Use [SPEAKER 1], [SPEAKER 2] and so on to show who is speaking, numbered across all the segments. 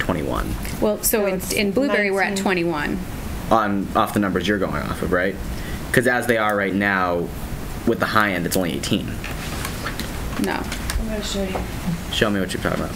[SPEAKER 1] 21
[SPEAKER 2] Well, so in,
[SPEAKER 3] it's
[SPEAKER 2] in Blueberry, we're at
[SPEAKER 3] 19.
[SPEAKER 2] 21.
[SPEAKER 1] on off the numbers you're going off of, right? Because as they are right now, with the high end, it's only 18.
[SPEAKER 2] No.
[SPEAKER 3] I'm gonna show you.
[SPEAKER 1] Show me what you're talking about.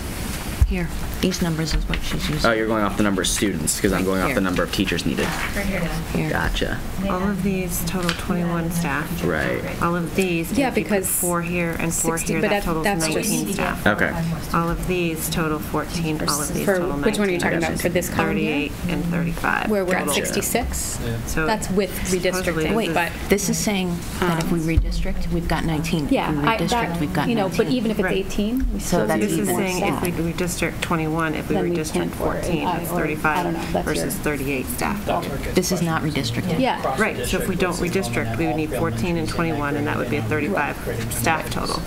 [SPEAKER 4] Here, these numbers is what she's using.
[SPEAKER 1] Oh, you're going off the number of students because I'm
[SPEAKER 4] Right
[SPEAKER 1] going off
[SPEAKER 4] here.
[SPEAKER 1] the number of teachers needed.
[SPEAKER 5] Right here.
[SPEAKER 4] Here.
[SPEAKER 1] Gotcha.
[SPEAKER 3] All of these total 21 staff.
[SPEAKER 1] Right.
[SPEAKER 3] All of these. and
[SPEAKER 2] Yeah,
[SPEAKER 3] if you put
[SPEAKER 2] because
[SPEAKER 3] Four here and four
[SPEAKER 2] 60
[SPEAKER 3] here,
[SPEAKER 2] but
[SPEAKER 3] that
[SPEAKER 2] that-
[SPEAKER 3] totals
[SPEAKER 2] that's just-
[SPEAKER 3] 19 staff.
[SPEAKER 1] Okay.
[SPEAKER 3] All of these total 14, all of these
[SPEAKER 2] For-
[SPEAKER 3] total 19.
[SPEAKER 2] which one are you talking about? For this column here?
[SPEAKER 3] 38 and 35.
[SPEAKER 2] Where we're at
[SPEAKER 3] total.
[SPEAKER 1] Gotcha.
[SPEAKER 2] 66?
[SPEAKER 3] So
[SPEAKER 2] That's with
[SPEAKER 3] supposedly
[SPEAKER 2] redistricting,
[SPEAKER 3] this
[SPEAKER 4] Wait,
[SPEAKER 3] is-
[SPEAKER 2] but,
[SPEAKER 4] this is saying that if we redistrict, we've got 19. If we
[SPEAKER 2] yeah. I-
[SPEAKER 4] redistrict,
[SPEAKER 2] that-
[SPEAKER 4] we've got 19.
[SPEAKER 2] You know, but even if it's
[SPEAKER 3] Right.
[SPEAKER 2] 18, we
[SPEAKER 4] So
[SPEAKER 2] still
[SPEAKER 4] that's
[SPEAKER 2] need
[SPEAKER 3] This is
[SPEAKER 4] even
[SPEAKER 2] more
[SPEAKER 3] saying if
[SPEAKER 2] staff.
[SPEAKER 3] we redistrict 21, if we
[SPEAKER 2] Then we can't,
[SPEAKER 3] redistrict
[SPEAKER 2] or-
[SPEAKER 3] 14,
[SPEAKER 2] I-
[SPEAKER 3] it's
[SPEAKER 2] or- I don't
[SPEAKER 3] 35
[SPEAKER 2] know, that's
[SPEAKER 3] versus
[SPEAKER 2] your-
[SPEAKER 3] 38 staff.
[SPEAKER 4] This is not redistricting.
[SPEAKER 2] Yeah.
[SPEAKER 3] Right, so if we don't redistrict, we would need 14 and 21, and that would be a 35 staff total.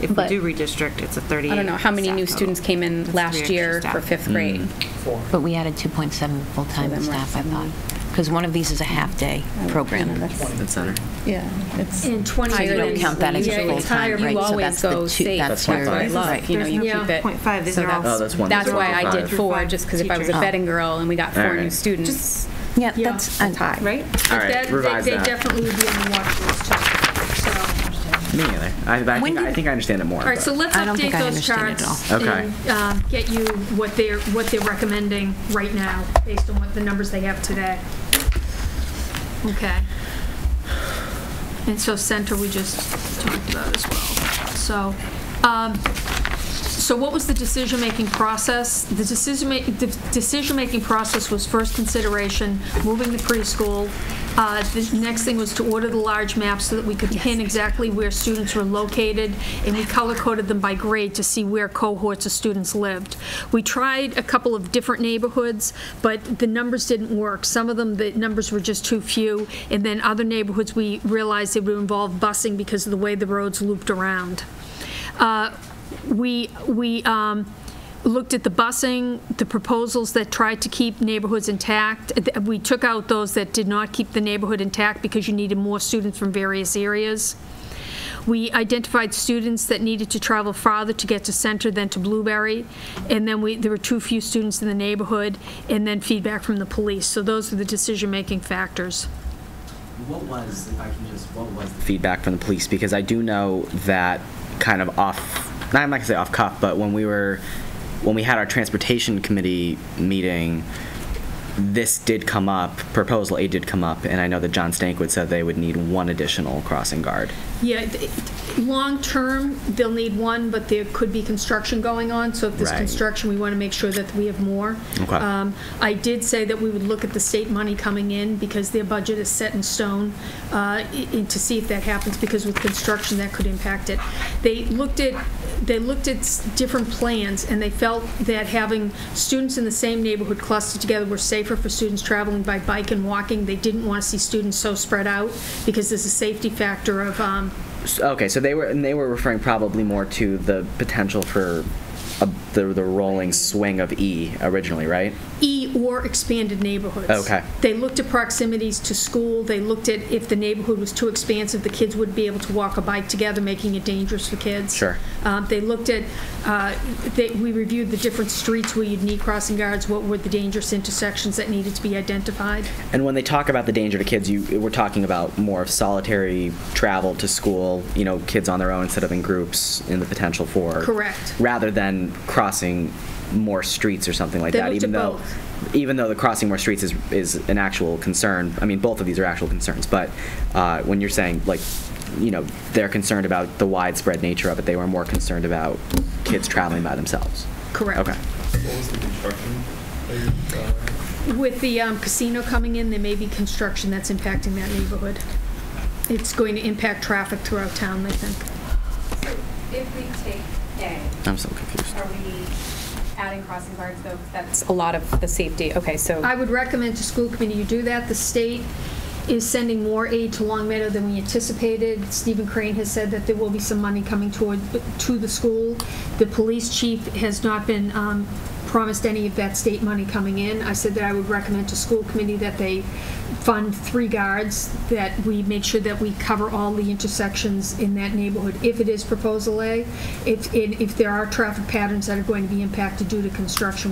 [SPEAKER 3] If we
[SPEAKER 2] But-
[SPEAKER 3] do redistrict, it's a 38.
[SPEAKER 2] I don't know, how many
[SPEAKER 3] staff
[SPEAKER 2] new
[SPEAKER 3] total.
[SPEAKER 2] students came in
[SPEAKER 3] That's three
[SPEAKER 2] last
[SPEAKER 3] extra
[SPEAKER 2] year
[SPEAKER 3] staff. Hmm.
[SPEAKER 2] for fifth grade?
[SPEAKER 4] But we added 2.7
[SPEAKER 2] So
[SPEAKER 4] full-time
[SPEAKER 2] then we're at
[SPEAKER 4] staff, I thought. Because one of these is a half-day program.
[SPEAKER 1] That's center.
[SPEAKER 2] Yeah, it's.
[SPEAKER 6] And 20
[SPEAKER 4] So you don't
[SPEAKER 6] is-
[SPEAKER 4] count that as
[SPEAKER 6] yeah,
[SPEAKER 4] a
[SPEAKER 6] it's
[SPEAKER 4] full-time,
[SPEAKER 6] higher,
[SPEAKER 4] right?
[SPEAKER 2] You
[SPEAKER 4] So
[SPEAKER 2] always
[SPEAKER 4] that's the
[SPEAKER 2] go
[SPEAKER 4] two-
[SPEAKER 2] safe.
[SPEAKER 4] that's
[SPEAKER 2] That's
[SPEAKER 1] where-
[SPEAKER 2] what I
[SPEAKER 1] This is
[SPEAKER 2] love, you know, you
[SPEAKER 3] there's
[SPEAKER 2] keep it.
[SPEAKER 3] 0.5, these
[SPEAKER 2] so
[SPEAKER 3] are all-
[SPEAKER 2] that's-
[SPEAKER 1] Oh, that's one
[SPEAKER 2] That's
[SPEAKER 1] through
[SPEAKER 2] why I
[SPEAKER 1] five.
[SPEAKER 2] did four,
[SPEAKER 3] Five
[SPEAKER 2] just because if I was a
[SPEAKER 3] teachers.
[SPEAKER 2] betting girl and we got four new
[SPEAKER 1] Alright.
[SPEAKER 2] students.
[SPEAKER 4] Yeah, that's, I-
[SPEAKER 3] Right?
[SPEAKER 1] All right,
[SPEAKER 6] That- they-
[SPEAKER 1] revise
[SPEAKER 6] They
[SPEAKER 1] that.
[SPEAKER 6] definitely would be on the watch list, too. So-
[SPEAKER 1] Me either. I, I,
[SPEAKER 4] When
[SPEAKER 1] think,
[SPEAKER 4] did-
[SPEAKER 1] I think I understand it more.
[SPEAKER 6] All right, so let's
[SPEAKER 4] I don't
[SPEAKER 6] update
[SPEAKER 4] think I
[SPEAKER 6] those
[SPEAKER 4] understand it at
[SPEAKER 6] charts.
[SPEAKER 1] all. Okay.
[SPEAKER 6] And um, get you what they're, what they're recommending right now, based on what the numbers they have today. Okay. And so center, we just talked about as well. So, um, so what was the decision-making process? The decision-making, the decision-making process was first consideration, moving the preschool. Uh, The next thing was to order the large maps so that we could pin exactly where students were located, and we color-coded them by grade to see where cohorts of students lived. We tried a couple of different neighborhoods, but the numbers didn't work. Some of them, the numbers were just too few, and then other neighborhoods, we realized it would involve busing because of the way the roads looped around. Uh, we, we um, looked at the busing, the proposals that tried to keep neighborhoods intact. Th- We took out those that did not keep the neighborhood intact because you needed more students from various areas. We identified students that needed to travel farther to get to Center than to Blueberry, and then we, there were too few students in the neighborhood, and then feedback from the police. So those were the decision-making factors.
[SPEAKER 7] What was, if I can just, what was the
[SPEAKER 1] feedback from the police because I do know that kind of off, not, I'm not gonna say off cuff, but when we were, when we had our transportation committee meeting, this did come up, proposal A did come up, and I know that John Stankwith said they would need one additional crossing guard.
[SPEAKER 6] Yeah, th- long-term, they'll need one, but there could be construction going on, so if there's
[SPEAKER 1] Right.
[SPEAKER 6] construction, we want to make sure that we have more.
[SPEAKER 1] Okay.
[SPEAKER 6] Um, I did say that we would look at the state money coming in, because their budget is set in stone, uh, i- i- to see if that happens, because with construction, that could impact it. They looked at, they looked at s- different plans, and they felt that having students in the same neighborhood clustered together were safer for students traveling by bike and walking. They didn't want to see students so spread out, because there's a safety factor of um,
[SPEAKER 1] S- Okay, so they were, and they were referring probably more to the potential for a- the, the rolling swing of E originally, right?
[SPEAKER 6] E or expanded neighborhoods.
[SPEAKER 1] Okay.
[SPEAKER 6] They looked at proximities to school, they looked at if the neighborhood was too expansive, the kids wouldn't be able to walk or bike together, making it dangerous for kids.
[SPEAKER 1] Sure.
[SPEAKER 6] Uh, They looked at, uh, they- we reviewed the different streets where you'd need crossing guards, what were the dangerous intersections that needed to be identified.
[SPEAKER 1] And when they talk about the danger to kids, you we're talking about more of solitary travel to school, you know, kids on their own instead of in groups and the potential for
[SPEAKER 6] Correct.
[SPEAKER 1] rather than crossing more streets or something like
[SPEAKER 6] They
[SPEAKER 1] that
[SPEAKER 6] looked
[SPEAKER 1] even
[SPEAKER 6] at
[SPEAKER 1] though even though the crossing more streets is is an actual concern. I mean, both of these are actual concerns, but uh, when you're saying like you know, they're concerned about the widespread nature of it. They were more concerned about kids traveling by themselves.
[SPEAKER 6] Correct.
[SPEAKER 1] Okay.
[SPEAKER 8] What was the construction? Uh,
[SPEAKER 6] With the um, casino coming in, there may be construction that's impacting that neighborhood. It's going to impact traffic throughout town, I think.
[SPEAKER 9] If we take A,
[SPEAKER 1] I'm so confused.
[SPEAKER 9] are we adding crossing guards though? 'Cause That's
[SPEAKER 2] It's a lot of the safety, okay, so.
[SPEAKER 6] I would recommend to school committee you do that. The state is sending more aid to Long Meadow than we anticipated. Stephen Crane has said that there will be some money coming toward, to the school. The police chief has not been um, promised any of that state money coming in. I said that I would recommend to school committee that they fund three guards, that we make sure that we cover all the intersections in that neighborhood if it is Proposal A. If, and if there are traffic patterns that are going to be impacted due to construction,